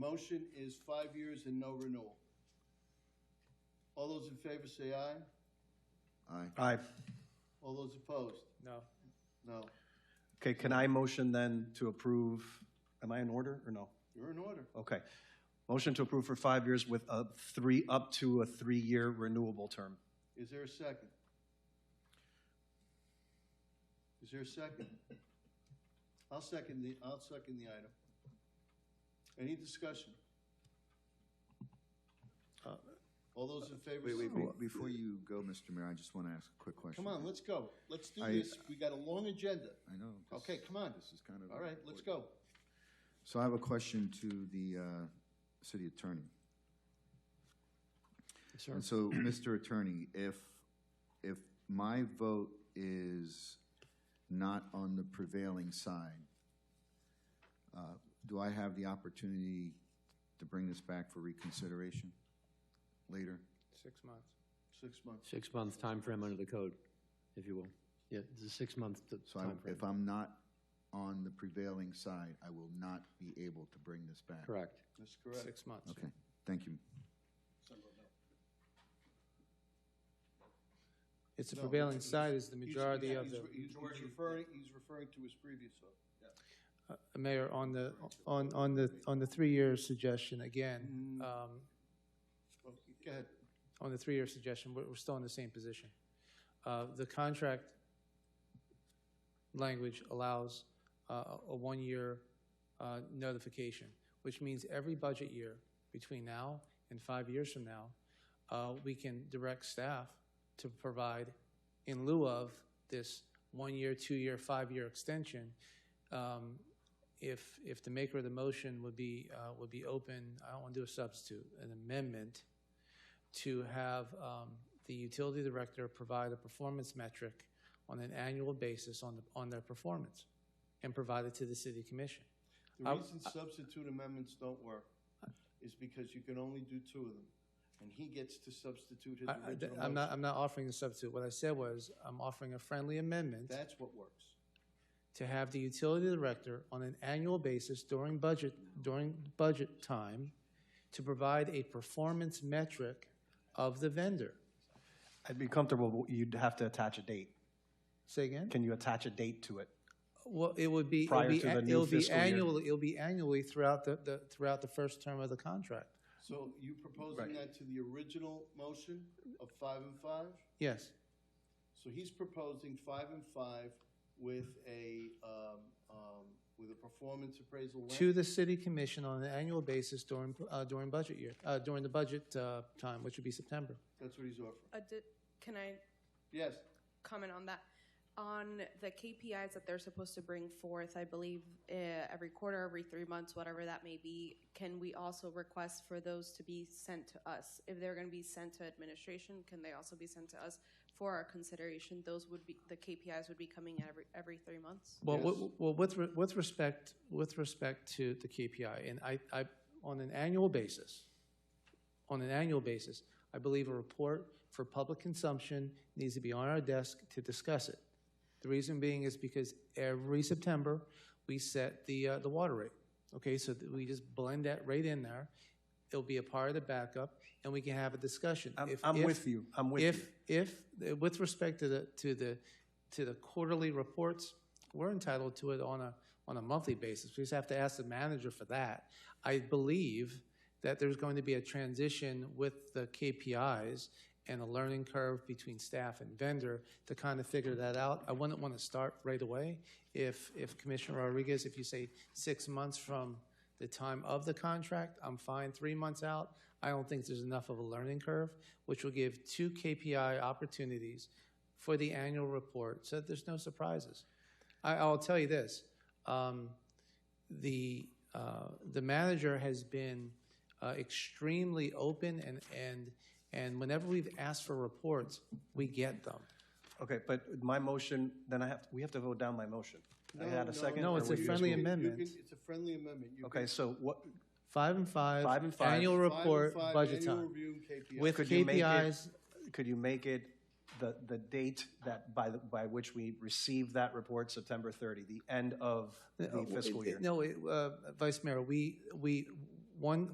Motion is five years and no renewal. All those in favor say aye. Aye. Aye. All those opposed? No. No. Okay, can I motion then to approve? Am I in order or no? You're in order. Okay. Motion to approve for five years with a three, up to a three-year renewable term. Is there a second? Is there a second? I'll second the, I'll second the item. Any discussion? All those in favor? Uh, Wait, wait, say- be- before you go, Mr. Mayor, I just want to ask a quick question. Come on, let's go. Let's do I- this. We got a long agenda. I know. this- Okay, come on. This is kind of. All right, let's go. So I have a question to the uh, city attorney. Sir. And so, Mr. Attorney, if, if my vote is not on the prevailing side, uh, do I have the opportunity to bring this back for reconsideration later? Six months. Six months. Six-month time frame under the code, if you will. Yeah, it's a six-month t- So I- timeframe. if I'm not on the prevailing side, I will not be able to bring this back? Correct. That's correct. Six months. Okay, thank you. It's a No, prevailing it's- side is the He's- majority yeah, of he's the, re- He's he's referring, he's referring to his previous vote. Uh, Mayor, on the, on, on the, on the three-year suggestion, again, um, Oh, Go ahead. on the three-year suggestion, we're, we're still in the same position. Uh, the contract language allows, uh, a one-year, uh, notification, which means every budget year between now and five years from now, uh, we can direct staff to provide in lieu of this one-year, two-year, five-year extension, um, if, if the maker of the motion would be, uh, would be open, I don't want to do a substitute, an amendment, to have um, the utility director provide a performance metric on an annual basis on, the, on their performance and provide it to the city commission. The I- reason substitute amendments don't work is because you can only do two of them, and he gets to substitute his I, I- original I'm, not, motion. I'm not offering a substitute. What I said was I'm offering a friendly amendment That's what works. to have the utility director on an annual basis during budget, during budget time to provide a performance metric of the vendor. I'd be comfortable, but you'd have to attach a date. Say again? Can you attach a date to it? Well, it would be, it'll Prior be, to the a- new it'll be fiscal year. annually, it'll be annually throughout the, the, throughout the first term of the contract. So you proposing that to the original motion of five and five? Yes, So he's proposing five and five with a, um, um, with a performance appraisal. when? to the city commission on an annual basis during, uh, during budget year, uh, during the budget, uh, time, which would be September. That's what he's offering. Uh, di- Can I Yes, comment on that? On the KPIs that they're supposed to bring forth, I believe uh, every quarter, every three months, whatever that may be, can we also request for those to be sent to us? If they're going to be sent to administration, can they also be sent to us for our consideration? Those would be, the KPIs would be coming every, every three months? Well, wi- well, with, re- with respect, with respect to the KPI, and I, I, on an annual basis, on an annual basis, I believe a report for public consumption needs to be on our desk to discuss it. The reason being is because every September, we set the, uh, the water rate. Okay, so that we just blend that right in there. It'll be a part of the backup, and we can have a discussion. I'm, If- I'm if- with you. I'm with you. if, if, with respect to the, to the, to the quarterly reports, we're entitled to it on a, on a monthly basis. We just have to ask the manager for that. I believe that there's going to be a transition with the KPIs and a learning curve between staff and vendor to kind of figure that out. I wouldn't want to start right away. If, if Commissioner Rodriguez, if you say six months from the time of the contract, I'm fine. Three months out, I don't think there's enough of a learning curve, which will give two KPI opportunities for the annual report, so that there's no surprises. I, I'll tell you this, um, the, uh, the manager has been uh, extremely open and, and, and whenever we've asked for reports, we get them. Okay, but my motion, then I have, we have to vote down my motion. I had a second. No, or it's a were you just friendly moving? You amendment. can- It's a friendly amendment. You Okay, can- so what, Five and five. Five and five. Annual five and report, five, budget annual time. review and KPIs. With Could you make it- KPIs, could you make it the, the date that, by, the- by which we receive that report, Uh, uh, September 30, the end of the fiscal year? No, it, uh, Vice Mayor, we, we, one,